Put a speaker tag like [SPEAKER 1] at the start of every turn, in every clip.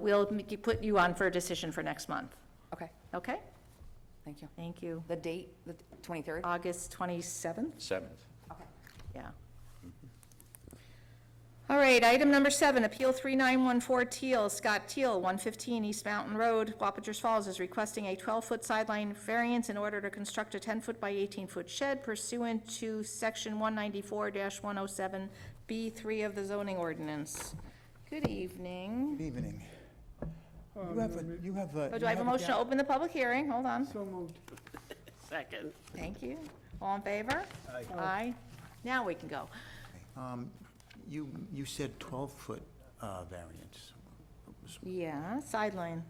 [SPEAKER 1] We'll make you- put you on for a decision for next month,
[SPEAKER 2] Okay,
[SPEAKER 1] okay?
[SPEAKER 2] thank you.
[SPEAKER 1] Thank you.
[SPEAKER 2] The date, the 23rd?
[SPEAKER 1] August 27th?
[SPEAKER 3] Seventh.
[SPEAKER 2] Okay.
[SPEAKER 1] Yeah. All right, item number seven, Appeal 3914 Teal, Scott Teal, 115 East Mountain Road, Wappingers Falls, is requesting a 12-foot sideline variance in order to construct a 10-foot by 18-foot shed pursuant to Section 194-107B3 of the zoning ordinance. Good evening.
[SPEAKER 4] Good evening. You have a, you have a.
[SPEAKER 1] Oh, Do
[SPEAKER 4] you
[SPEAKER 1] I have a motion to
[SPEAKER 4] ga-
[SPEAKER 1] open the public hearing? Hold on.
[SPEAKER 5] So moved.
[SPEAKER 6] Second.
[SPEAKER 1] Thank you. All in favor? Aye. Aye. Now we can go.
[SPEAKER 4] You, you said 12-foot uh, variance. It's
[SPEAKER 1] Yeah, sideline.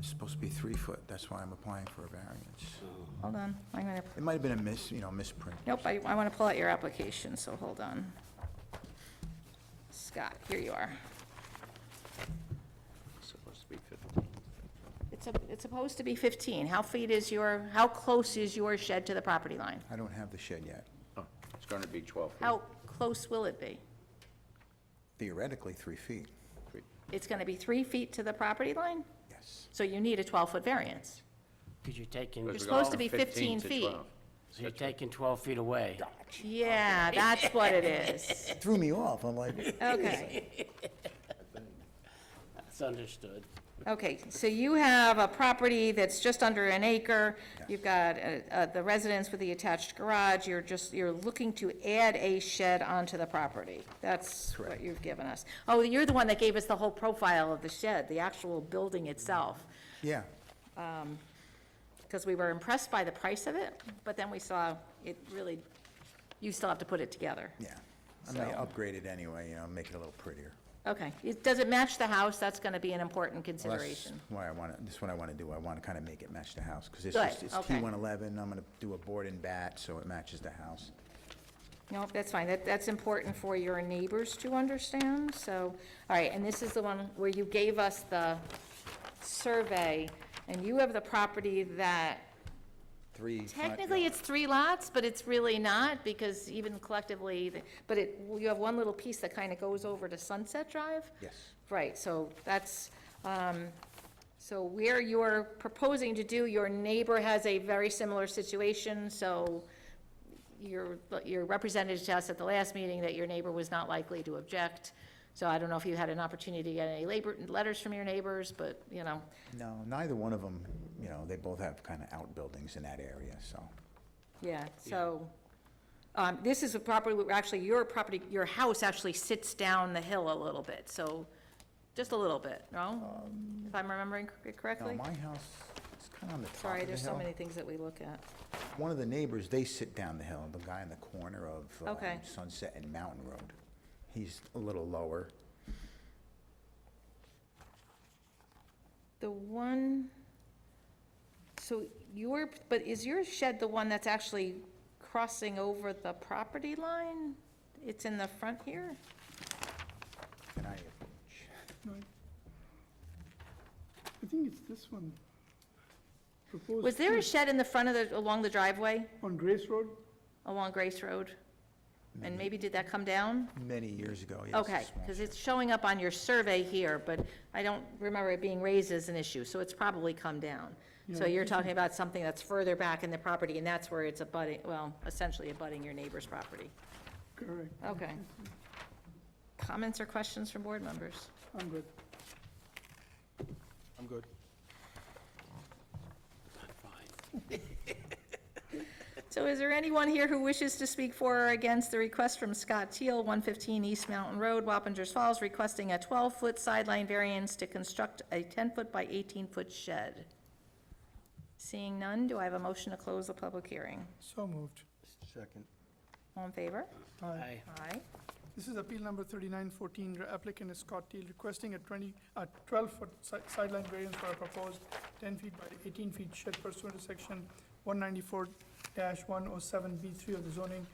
[SPEAKER 4] supposed to be three foot, that's why I'm applying for a variance.
[SPEAKER 1] Hold on, I'm gonna,
[SPEAKER 4] It might have been a mis, you know, misprint.
[SPEAKER 1] nope, I, I wanna pull out your application, so hold on. Scott, here you are.
[SPEAKER 3] Supposed to be fifteen.
[SPEAKER 1] It's a, it's supposed to be fifteen. How feet is your, how close is your shed to the property line?
[SPEAKER 4] I don't have the shed yet.
[SPEAKER 3] Oh, It's going to be twelve feet.
[SPEAKER 1] How close will it be?
[SPEAKER 4] Theoretically, three feet,
[SPEAKER 3] Three.
[SPEAKER 1] It's gonna be three feet to the property line,
[SPEAKER 4] yes.
[SPEAKER 1] so you need a twelve-foot variance.
[SPEAKER 6] Because you're taking,
[SPEAKER 3] Because
[SPEAKER 6] so
[SPEAKER 3] we're going
[SPEAKER 1] supposed to be
[SPEAKER 3] from
[SPEAKER 1] 15
[SPEAKER 3] to
[SPEAKER 1] feet.
[SPEAKER 3] 12.
[SPEAKER 6] you're taking 12 feet away.
[SPEAKER 1] Yeah, that's what it is.
[SPEAKER 4] It Threw me off, I'm like,
[SPEAKER 1] Okay.
[SPEAKER 6] That's understood.
[SPEAKER 1] Okay, so you have a property that's just under an acre, you've got uh, uh, the residence with the attached garage, you're just, you're looking to add a shed onto the property. That's what
[SPEAKER 4] Correct.
[SPEAKER 1] you've given us. Oh, you're the one that gave us the whole profile of the shed, the actual building itself,
[SPEAKER 4] yeah,
[SPEAKER 1] because we were impressed by the price of it, but then we saw it really, you still have to put it together.
[SPEAKER 4] yeah. I may
[SPEAKER 1] So-
[SPEAKER 4] upgrade it anyway, you know, make it a little prettier.
[SPEAKER 1] Okay, It- does it match the house? That's going to be an important
[SPEAKER 4] Well, that's
[SPEAKER 1] consideration.
[SPEAKER 4] Why I want to, this is what I want to do, I want to kind of make it match the house, because it's
[SPEAKER 1] Good,
[SPEAKER 4] just, it's
[SPEAKER 1] okay.
[SPEAKER 4] T111, I'm going to do a board and bat, so it matches the house.
[SPEAKER 1] No, that's fine, that, that's important for your neighbors to understand, so, all right, and this is the one where you gave us the survey, and you have the property that,
[SPEAKER 4] Three. front
[SPEAKER 1] technically,
[SPEAKER 4] yard.
[SPEAKER 1] it's three lots, but it's really not, because even collectively, the- but it, you have one little piece that kind of goes over to Sunset Drive?
[SPEAKER 4] Yes.
[SPEAKER 1] Right, so that's, um, so where you're proposing to do, your neighbor has a very similar situation, so your, your representative to us at the last meeting that your neighbor was not likely to object. So I don't know if you had an opportunity to get any labor, letters from your neighbors, but, you know,
[SPEAKER 4] No, neither one of them, you know, they both have kind of outbuildings in that area, so.
[SPEAKER 1] yeah, so. Um, this is a property, where actually, your property, your house actually sits down the hill a little bit, so, just a little bit, no? If I'm remembering it
[SPEAKER 4] Now,
[SPEAKER 1] correctly?
[SPEAKER 4] my house, it's kind of on the top of the hill.
[SPEAKER 1] Sorry, there's so many things that we look at.
[SPEAKER 4] One of the neighbors, they sit down the hill, the guy in the corner of um,
[SPEAKER 1] Okay.
[SPEAKER 4] Sunset and Mountain Road. He's a little lower.
[SPEAKER 1] The one, so your, but is your shed the one that's actually crossing over the property line? It's in the front here?
[SPEAKER 4] Can I approach?
[SPEAKER 5] Right. I think it's this one. Proposed
[SPEAKER 1] Was there a
[SPEAKER 5] two
[SPEAKER 1] shed in the front of the, along the driveway,
[SPEAKER 5] On Grace Road?
[SPEAKER 1] along Grace Road? And maybe did that come down?
[SPEAKER 4] Many years ago, Mm-hmm. yes.
[SPEAKER 1] Okay,
[SPEAKER 4] small
[SPEAKER 1] because
[SPEAKER 4] shed.
[SPEAKER 1] it's showing up on your survey here, but I don't remember it being raised as an issue, so it's probably come down. So you're talking about something that's further back in the property, and that's where it's abutting, well, essentially abutting your neighbor's property.
[SPEAKER 5] Correct.
[SPEAKER 1] Okay. Comments or questions from board members?
[SPEAKER 5] I'm good.
[SPEAKER 3] I'm good.
[SPEAKER 1] So is there anyone here who wishes to speak for or against the request from Scott Teal, 115 East Mountain Road, Wappingers Falls, requesting a 12-foot sideline variance to construct a 10-foot by 18-foot shed? Seeing none, do I have a motion to close the public hearing?
[SPEAKER 5] So moved.
[SPEAKER 3] Second.
[SPEAKER 1] All in favor?
[SPEAKER 5] Aye.
[SPEAKER 6] Aye.
[SPEAKER 1] Aye.
[SPEAKER 5] This is appeal number thirty-nine fourteen, applicant is Scott Teal requesting a twenty, a twelve-foot sideline variance for a proposed ten feet by eighteen feet shed pursuant to section one ninety-four one oh seven B three of the zoning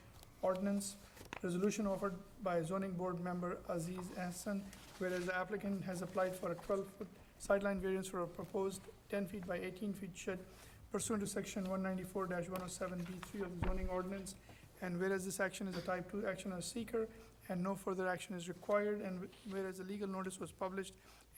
[SPEAKER 5] ordinance. Resolution offered by zoning board member Aziz Hassan, whereas the applicant has applied for a twelve-foot sideline variance for a proposed ten feet by eighteen feet shed pursuant to section one ninety-four one oh seven B three of the zoning ordinance. And whereas this action is a type two action as seeker, and no further action is required, and whereas a legal notice was published